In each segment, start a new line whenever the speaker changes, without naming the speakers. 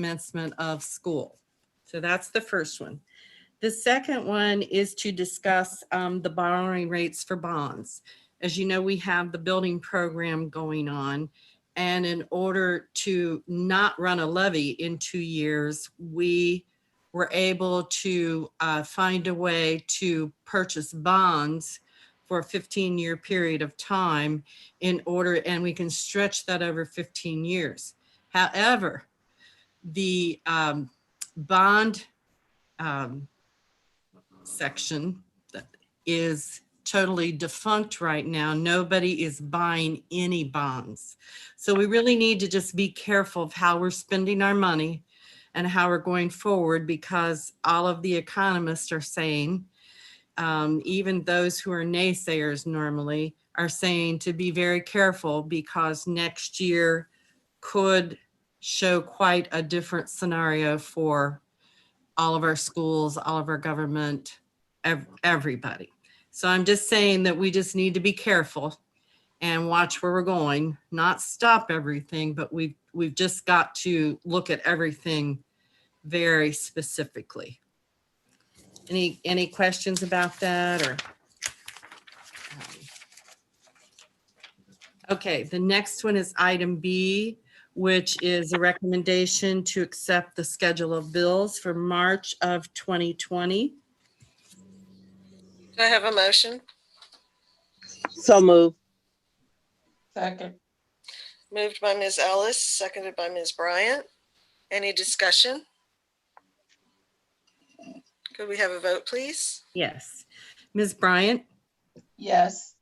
commencement of school. So that's the first one. The second one is to discuss um, the borrowing rates for bonds. As you know, we have the building program going on. And in order to not run a levy in two years, we were able to uh, find a way to purchase bonds for a 15-year period of time in order, and we can stretch that over 15 years. However, the um, bond um, section that is totally defunct right now. Nobody is buying any bonds. So we really need to just be careful of how we're spending our money and how we're going forward because all of the economists are saying, um, even those who are naysayers normally are saying to be very careful because next year could show quite a different scenario for all of our schools, all of our government, ev- everybody. So I'm just saying that we just need to be careful and watch where we're going, not stop everything, but we've, we've just got to look at everything very specifically. Any, any questions about that or? um, Okay, the next one is item B, which is a recommendation to accept the schedule of bills for March of 2020.
Do I have a motion?
So move.
Second,
Moved by Ms. Ellis, seconded by Ms. Bryant. Any discussion? Could we have a vote, please?
Yes. Ms. Bryant,
yes,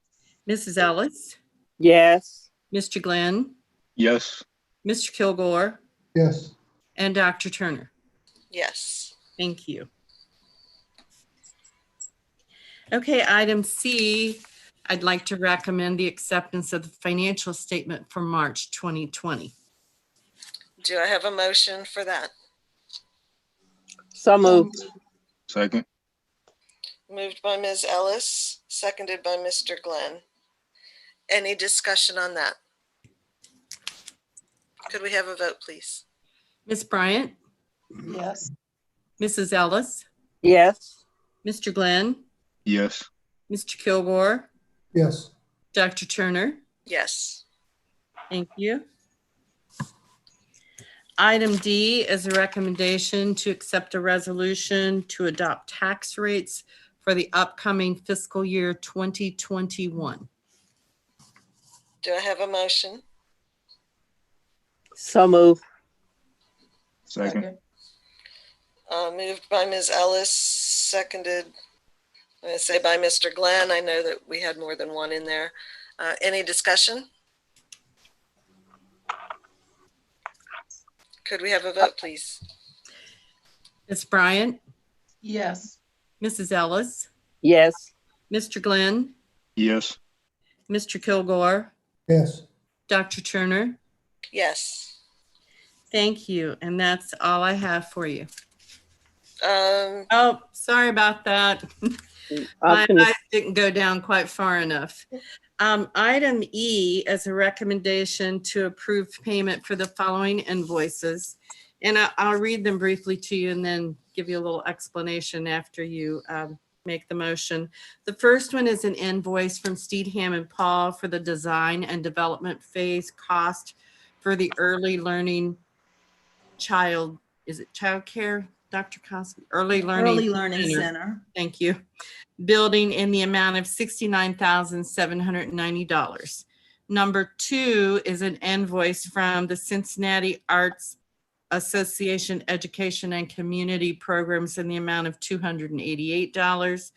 Mrs. Ellis,
Yes.
Mr. Glenn,
Yes.
Mr. Kilgore,
yes,
and Dr. Turner.
Yes.
Thank you. Okay, item C, I'd like to recommend the acceptance of the financial statement for March 2020.
Do I have a motion for that?
So move.
Second.
Moved by Ms. Ellis, seconded by Mr. Glenn. Any discussion on that? Could we have a vote, please?
Ms. Bryant,
yes,
Mrs. Ellis,
Yes.
Mr. Glenn,
Yes.
Mr. Kilgore,
yes,
Dr. Turner.
Yes.
Thank you. Item D is a recommendation to accept a resolution to adopt tax rates for the upcoming fiscal year 2021.
Do I have a motion?
So move.
Second.
second,
Uh, moved by Ms. Ellis, seconded, I'm gonna say by Mr. Glenn. I know that we had more than one in there. Uh, any discussion? Could we have a vote, please?
Ms. Bryant,
yes,
Mrs. Ellis,
Yes.
Mr. Glenn,
Yes.
Mr. Kilgore,
yes,
Dr. Turner.
Yes.
Thank you, and that's all I have for you.
Um,
Oh, sorry about that.
I
My
can-
eyes didn't go down quite far enough. Um, item E is a recommendation to approve payment for the following invoices. And I, I'll read them briefly to you and then give you a little explanation after you, um, make the motion. The first one is an invoice from Steedham and Paul for the design and development phase cost for the early learning child, is it childcare, Dr. Cosby? Early learning.
Early Learning
Center.
Center.
Thank you. Building in the amount of sixty-nine thousand, seven hundred and ninety dollars. Number two is an invoice from the Cincinnati Arts Association Education and Community Programs in the amount of two hundred and eighty-eight dollars.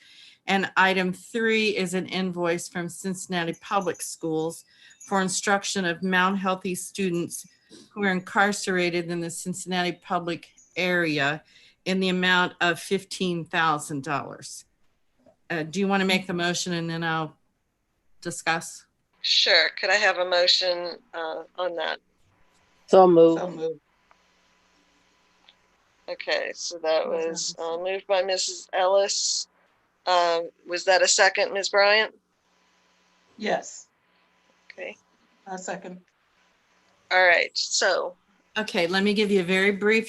And item three is an invoice from Cincinnati Public Schools for instruction of Mount Healthy students who are incarcerated in the Cincinnati public area in the amount of fifteen thousand dollars. Uh, do you want to make the motion and then I'll discuss?
sure, could I have a motion, uh, on that?
So
so
move.
moved,
Okay, so that was, uh, moved by Mrs. Ellis. Um, was that a second, Ms. Bryant?
yes,
Okay,
I second.
all right, so
Okay, let me give you a very brief